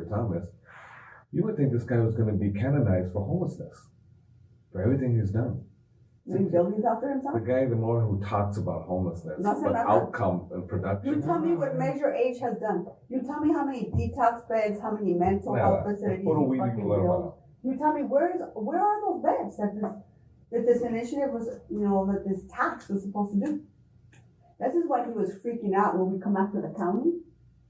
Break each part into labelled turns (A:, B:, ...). A: Thomas, you would think this guy was going to be canonized for homelessness, for everything he's done.
B: Did he build these after himself?
A: The guy, the more who talks about homelessness,
B: Not so
A: but
B: bad.
A: outcome and
B: You
A: production.
B: tell me what Measure H has done. You tell me how many detox beds, how many mental
A: Yeah,
B: health
A: that's
B: facilities
A: what do
B: you
A: we
B: fucking
A: need to learn
B: built. You tell me where is where are those beds that this that this initiative was you know that this tax was supposed to do. This is why he was freaking out when we come after the county.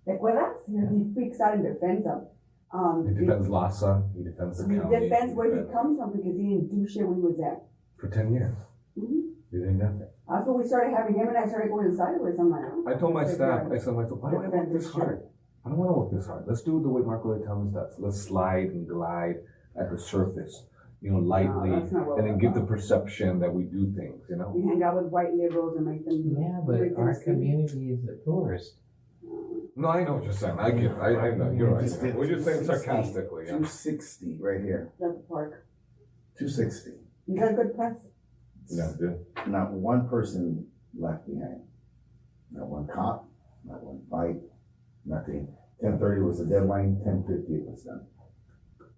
B: Like well that's here he freaks out and defends them. Um
A: He defends Lhasa. He defends the
B: he
A: county.
B: defends where he
A: defends-
B: comes from because he didn't do shit when he was there.
A: for ten years.
B: Mhm.
A: He did nothing.
B: That's when we started having him and I started going sideways. I'm like,
A: I told my
B: It's like
A: staff,
B: you're-
A: I said, myself, why do I work
B: defend
A: this
B: this shit.
A: hard? I don't want to work this hard. Let's do it the way Marco Lee Thomas does. Let's slide and glide at the surface, you know, lightly,
B: that's not what
A: and then
B: we're
A: give the
B: about.
A: perception that we do things, you know.
B: you hang out with white liberals and make them
C: Yeah, but
B: make them
C: our
B: speak.
C: community is the poorest.
A: No, I know what you're saying. I get. it. I, I know. You're right.
D: Just did
A: We're just saying
D: 260.
A: sarcastically. Yeah.
D: 260 right here.
B: That's the park.
D: 260.
B: You got good press.
A: Yeah, dude.
D: Not one person left behind. Not one cop, not one fight, nothing. 1030 was the deadline, 1050 it was done.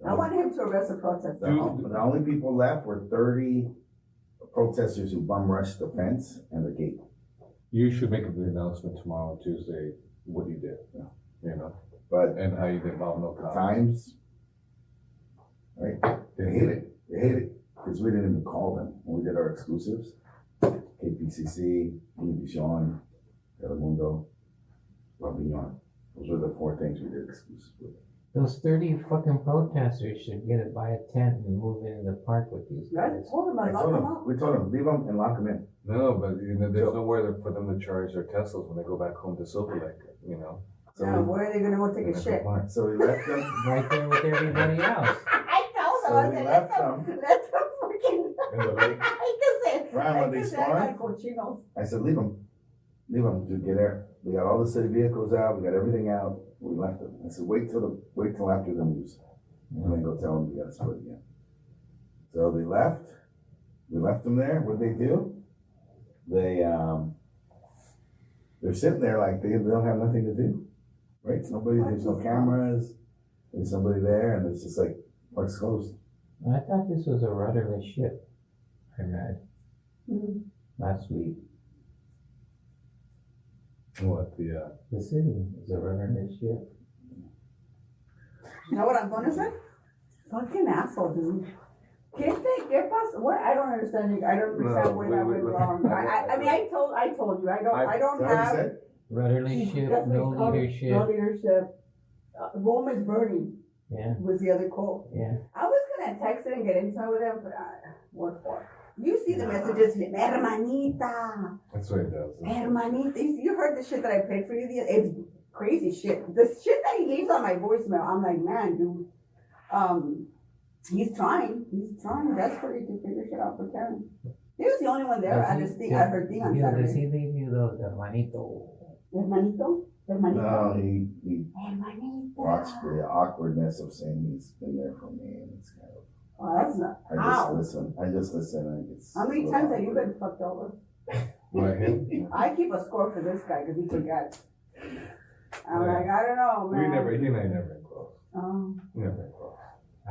B: I want him to arrest the protester.
D: The, on- the only people left were 30 protesters who bum rushed the fence and the gate.
A: You should make the announcement tomorrow, Tuesday, what you did.
D: Yeah.
A: You know,
D: But
A: and how you did Bob no
D: the
A: cops.
D: times, right? They hate it. They hate it because we didn't even call them when we did our exclusives. KPCC, Univision, Telemundo, Robinyon. Those were the four things we did exclusive with.
C: Those thirty fucking protesters should get it by a tent and move into the park with these
B: Right?
C: guys.
B: Told him I
D: I
B: locked
D: told
B: him
D: them,
B: up.
D: we told them, leave them and lock them in.
A: No, but you know, there's
D: So-
A: nowhere for them to charge their Teslas when they go back home to Silver Lake. You know.
B: Now,
D: So,
B: where are they gonna go take a shit?
D: we- so we left them.
C: Right there with everybody else.
B: I told
D: So
B: him, I
D: we
B: said, let
D: left
B: them, let them freaking,
D: in the lake.
B: I said,
D: Ryan,
B: I
D: when they
B: said, I
D: spawned,
B: got cochinos.
D: I said, leave them. Leave them, dude, get there. We got all the city vehicles out, we got everything out. We left them. I said, wait till the, wait till after the news. And then go tell them we gotta split again. So they left. We left them there. What'd they do? They, um, they're sitting there like they, they don't have nothing to do, right? Nobody, there's no cameras. There's somebody there and it's just like, park's closed.
C: I thought this was a rudderless ship. I read
B: Mhm.
C: last week.
A: What the? Uh,
C: The city is a rudderless ship.
B: You know what I'm gonna say? Fucking asshole, dude. Can't they give us, what, I don't understand, you- I don't
A: No,
B: understand where
A: we-
B: that
A: we-
B: went
A: we-
B: wrong. I, I, I mean, I told, I told you, I don't,
A: I-
B: I
D: Is
B: don't
D: that what you
B: have.
D: said?
C: Rudderless ship,
B: That's what
C: no
B: you call it, No
C: leadership.
B: leadership. Uh, Rome is burning
C: Yeah,
B: was the other quote.
C: yeah.
B: I was gonna text it and get into it with him, but I, what for? You see the messages, hermanita,
A: that's what it does.
B: hermanita. You, you heard the shit that I played for you. The it's crazy shit. The shit that he leaves on my voicemail. I'm like, man, dude. Um, he's trying. He's trying desperately to figure shit out for Karen. He was the only one there at
C: Does
B: his
C: he-
B: thing, at her thing on
C: Yeah, does
B: Saturday.
C: he leave you those hermanito?
B: Hermanito,
D: No,
B: hermanito,
D: he, he watched
B: hermanita.
D: the awkwardness of saying he's been there for me and it's kind of,
B: Oh, that's not.
D: I just
B: Ow.
D: listen, I just listen and it's.
B: How many times have you been fucked over?
A: Right him?
B: I keep a score for this guy because he forgets. I'm
A: Yeah.
B: like, I don't know,
A: We
B: man.
A: never. He and I never been close.
B: Oh,
A: Never been close.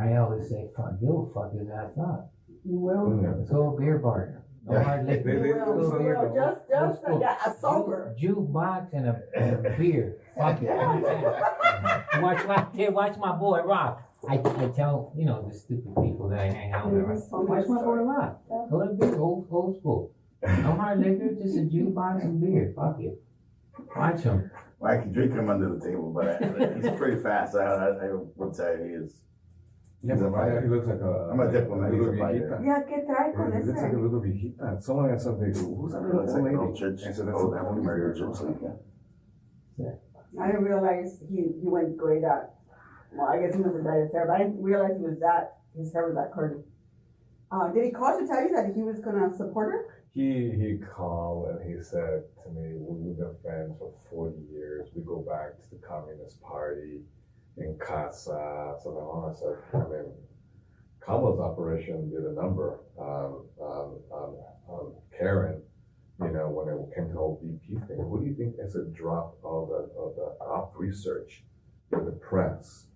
C: I always say, fuck, you'll fuck his ass up.
A: We
B: you will.
A: never.
C: Let's go beer bar. No
D: Yeah.
C: hard liquor.
A: They-
B: You
A: they-
B: will.
C: so
B: You
C: they're
B: will.
C: the-
B: Just,
C: those
B: just a,
C: cool-
B: yeah, a sober.
C: Jukebox and a, and a beer. Fuck it. Watch my, hey, watch my boy rock. I, I tell, you know, the stupid people that I hang out with. I say, Watch my boy rock. A little bit old, old school. No hard liquor, just a jukebox and beer. Fuck it. Watch him.
D: Well, I can drink him under the table, but I, he's pretty fast. I, I, I would say he is.
A: Yeah,
D: He's a
A: but why-
D: fighter.
A: he looks like a.
D: I'm a diplomat,
A: little
D: he's a fighter.
A: viejita.
B: Yeah, que trae
A: He looks like a little viejita. Someone asked something. Who's that little
D: Looks like an
A: old lady?
D: old church.
A: I said, that's
D: old
A: a-
D: African American church like that.
B: I didn't realize he, he went gray that. Well, I guess he was dyed his hair, but I didn't realize he was that. His hair was that curly. Uh, did he call to tell you that he was gonna support her?
A: He he called and he said to me, "We- "We've been friends for forty years. We go back to the Communist Party in Casa." So then I said, "I mean, Kamala's operation did a number um, um, um, um, Karen." You know, when it came to the whole VP thing, what do you think is a drop of the, of the op research, of the press,